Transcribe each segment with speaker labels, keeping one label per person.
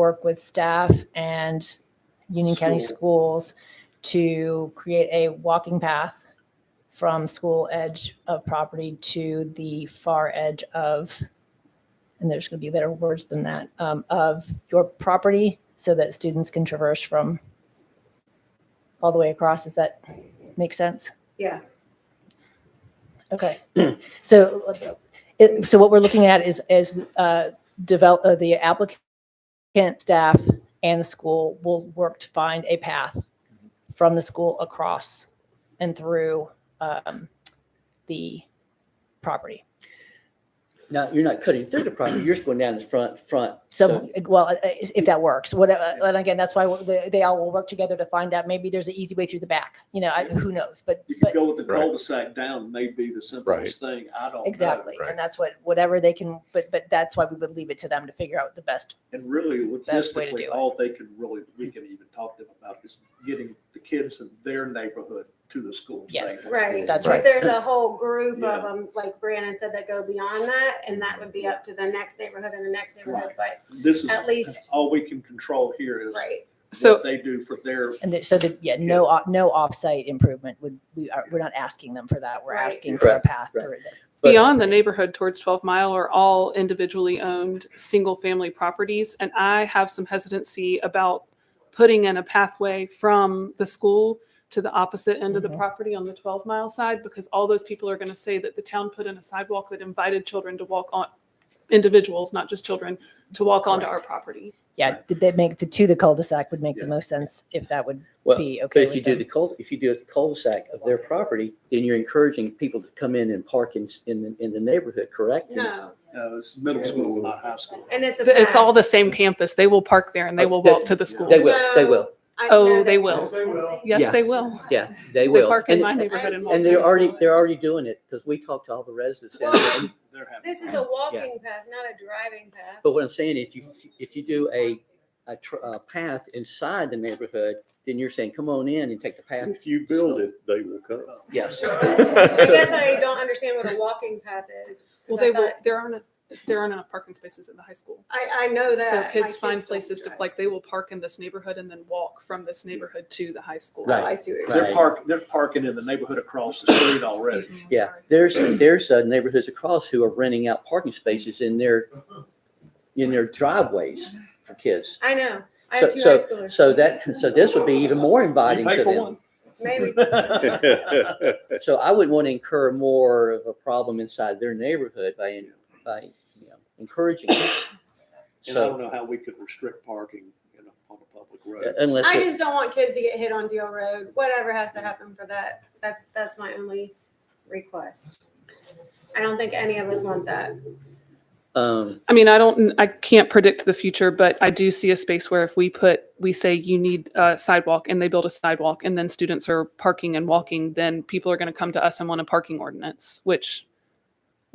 Speaker 1: work with staff and Union County Schools to create a walking path from school edge of property to the far edge of, and there's going to be better words than that, um, of your property so that students can traverse from all the way across. Does that make sense?
Speaker 2: Yeah.
Speaker 1: Okay. So, it- so what we're looking at is, is uh, develop, uh, the applicant staff and the school will work to find a path from the school across and through um, the property.
Speaker 3: Now, you're not cutting through the property, you're just going down the front, front.
Speaker 1: So, well, uh, if that works, whatever, and again, that's why they they all will work together to find out, maybe there's an easy way through the back, you know, I- who knows, but,
Speaker 4: You could
Speaker 1: but,
Speaker 4: go with the
Speaker 5: Right.
Speaker 4: cul-de-sac down may be the simplest thing. I don't know.
Speaker 1: exactly.
Speaker 5: Right.
Speaker 1: And that's what, whatever they can, but, but that's why we would leave it to them to figure out the best.
Speaker 4: And really
Speaker 1: Best way to do
Speaker 4: logistically,
Speaker 1: it.
Speaker 4: all they can really, we can even talk to them about is getting the kids in their neighborhood to the school.
Speaker 1: Yes.
Speaker 4: safely.
Speaker 2: Right.
Speaker 1: That's
Speaker 2: Because
Speaker 1: right.
Speaker 2: There's a whole group
Speaker 4: Yeah.
Speaker 2: of them, like Brandon said, that go beyond that, and that would be up to the next neighborhood and the next neighborhood, but
Speaker 4: This is,
Speaker 2: at least,
Speaker 4: all we can control here is
Speaker 2: right.
Speaker 4: what
Speaker 6: So,
Speaker 4: they do for their,
Speaker 1: And that- so the, yeah, no, off- no offsite improvement would, we are, we're not asking them for that. We're
Speaker 2: Right.
Speaker 1: asking for a
Speaker 3: Correct,
Speaker 1: path
Speaker 3: right.
Speaker 1: through. the-
Speaker 3: But-
Speaker 6: beyond the neighborhood towards 12 Mile are all individually owned, single family properties. And I have some hesitancy about putting in a pathway from the school to the opposite end of the
Speaker 3: Mm-hmm.
Speaker 1: Mhm.
Speaker 6: property on the 12 Mile side because all those people are going to say that the town put in a sidewalk that invited children to walk on, individuals, not just children, to walk onto our property.
Speaker 1: Yeah, did they make the, to the cul-de-sac would make the
Speaker 4: Yeah.
Speaker 1: most sense if that would
Speaker 3: Well,
Speaker 1: be
Speaker 3: But
Speaker 1: okay
Speaker 3: if you
Speaker 1: with
Speaker 3: do
Speaker 1: them.
Speaker 3: the cul, if you do the cul-de-sac of their property, then you're encouraging people to come in and park in, s- in, the- in the neighborhood, correct?
Speaker 2: No,
Speaker 4: uh, it's middle school, not high school.
Speaker 2: and it's a.
Speaker 6: It's all the same campus. They will park there and they will walk to the school.
Speaker 3: Uh, They will, they
Speaker 2: No.
Speaker 3: will,
Speaker 6: Oh, they will.
Speaker 5: Yes, they will.
Speaker 6: Yes,
Speaker 3: Yeah.
Speaker 6: they will.
Speaker 3: yeah, they
Speaker 6: They
Speaker 3: will.
Speaker 6: park in
Speaker 3: And-
Speaker 6: my neighborhood and walk
Speaker 3: And
Speaker 6: to the
Speaker 3: they're
Speaker 6: school.
Speaker 3: already, they're already doing it, because we talked to all the residents. down there.
Speaker 2: Well-
Speaker 4: They're having-
Speaker 2: This is a walking path, not a driving path.
Speaker 3: But what I'm saying, if you, if you do a, a, tr- a path inside the neighborhood, then you're saying, come on in and take the path.
Speaker 7: If you build it, they will come.
Speaker 3: Yes.
Speaker 2: I guess
Speaker 3: So-
Speaker 2: I don't understand what a walking path is.
Speaker 6: Well,
Speaker 2: 'cause I
Speaker 6: they will,
Speaker 2: thought-
Speaker 6: there aren't, there aren't enough parking spaces at the high school.
Speaker 2: I, I know
Speaker 6: So
Speaker 2: Oh, that. My
Speaker 6: kids find
Speaker 2: don't
Speaker 6: places to,
Speaker 2: drive.
Speaker 6: like, they will park in this neighborhood and then walk from this neighborhood to the high school.
Speaker 2: Oh,
Speaker 3: Right.
Speaker 2: I see what you're saying.
Speaker 4: They're park, they're parking in the neighborhood across the street already.
Speaker 6: Excuse me, I'm
Speaker 3: Yeah,
Speaker 6: sorry.
Speaker 3: there's, there's uh, neighborhoods across who are renting out parking spaces in their, in their driveways for kids.
Speaker 2: I know. I
Speaker 3: So,
Speaker 2: have two high
Speaker 3: so,
Speaker 2: schoolers.
Speaker 3: so that, so this would be even more
Speaker 4: You
Speaker 3: inviting
Speaker 4: pay
Speaker 3: to
Speaker 4: for
Speaker 3: them.
Speaker 4: one.
Speaker 2: Maybe.
Speaker 3: So I wouldn't want to incur more of a problem inside their neighborhood by, by, you know, encouraging it.
Speaker 4: And I don't
Speaker 3: So
Speaker 4: know how we could restrict parking, you know, on a public road.
Speaker 3: unless.
Speaker 2: I
Speaker 3: it-
Speaker 2: just don't want kids to get hit on Deal Road. Whatever has to happen for that. That's that's my only request. I don't think any of us want that.
Speaker 3: Um,
Speaker 6: I mean, I don't, I can't predict the future, but I do see a space where if we put, we say you need a sidewalk and they build a sidewalk and then students are parking and walking, then people are going to come to us and want a parking ordinance, which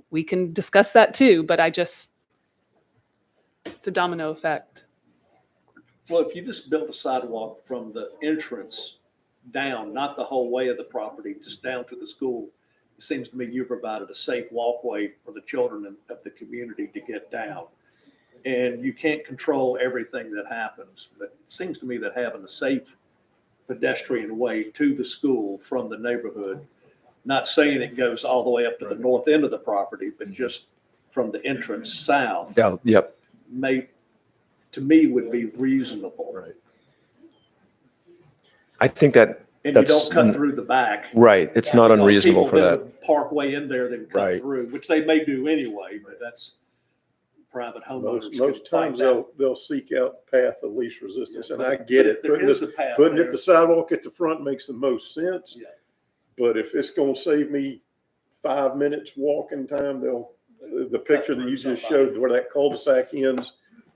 Speaker 6: we can discuss that too, but I just, it's a domino effect.
Speaker 4: Well, if you just built a sidewalk from the entrance down, not the whole way of the property, just down to the school, it seems to me you provided a safe walkway for the children of- of the community to get down. And you can't control everything that happens, but it seems to me that having a safe pedestrian way to the school from the neighborhood, not saying it goes all the way up to the north end of the property, but just from the entrance south
Speaker 5: Mm-hmm. Yeah, yep.
Speaker 4: may, to me, would be reasonable.
Speaker 5: Right. I think that,
Speaker 4: And you
Speaker 5: That's-
Speaker 4: don't cut through the back.
Speaker 5: right, it's
Speaker 1: Yeah.
Speaker 5: not
Speaker 4: Because
Speaker 5: unreasonable for
Speaker 4: people
Speaker 5: that.
Speaker 4: would Park way in there, then cut
Speaker 5: Right.
Speaker 4: through, which they may do anyway, but that's private homeowners.
Speaker 7: Most,
Speaker 4: can
Speaker 7: most
Speaker 4: fight
Speaker 7: times
Speaker 4: that.
Speaker 7: they'll, they'll seek out path of least resistance and I
Speaker 4: But
Speaker 7: get it.
Speaker 4: There
Speaker 7: Putting
Speaker 4: is
Speaker 7: the,
Speaker 4: a path
Speaker 7: putting it
Speaker 4: there.
Speaker 7: the sidewalk at the front makes the most sense.
Speaker 4: Yeah.
Speaker 7: But if it's gonna save me five minutes walking time, they'll, the the picture that you just showed where that cul-de-sac ends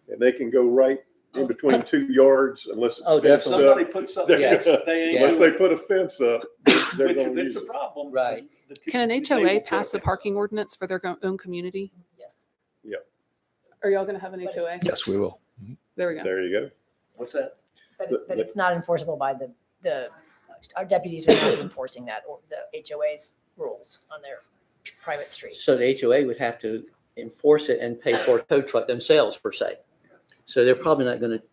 Speaker 7: and they can go right
Speaker 4: Oh.
Speaker 7: in between two yards unless
Speaker 3: Oh,
Speaker 7: it's fenced
Speaker 3: definitely.
Speaker 4: Somebody
Speaker 7: up.
Speaker 4: put something,
Speaker 3: Yeah.
Speaker 4: else that they ain't
Speaker 7: Unless they
Speaker 4: doing,
Speaker 7: put a fence up, they're
Speaker 4: which
Speaker 7: gonna
Speaker 4: if
Speaker 7: use
Speaker 4: it's a
Speaker 7: it.
Speaker 4: problem.
Speaker 3: Right.
Speaker 4: the co-
Speaker 6: Can an
Speaker 4: they will
Speaker 6: HOA
Speaker 4: put
Speaker 6: pass a
Speaker 4: fence.
Speaker 6: parking ordinance for their go- own community?
Speaker 1: Yes.
Speaker 6: Are y'all gonna have an HOA?
Speaker 5: Yes, we will.
Speaker 6: There we go.
Speaker 7: There you go.
Speaker 4: What's that?
Speaker 1: But
Speaker 7: The-
Speaker 1: it's, but
Speaker 7: the-
Speaker 1: it's not enforceable by the, the, our deputies are not enforcing that or the HOA's rules on their private streets.
Speaker 3: so the HOA would have to enforce it and pay for a tow truck themselves per se. So they're probably not going to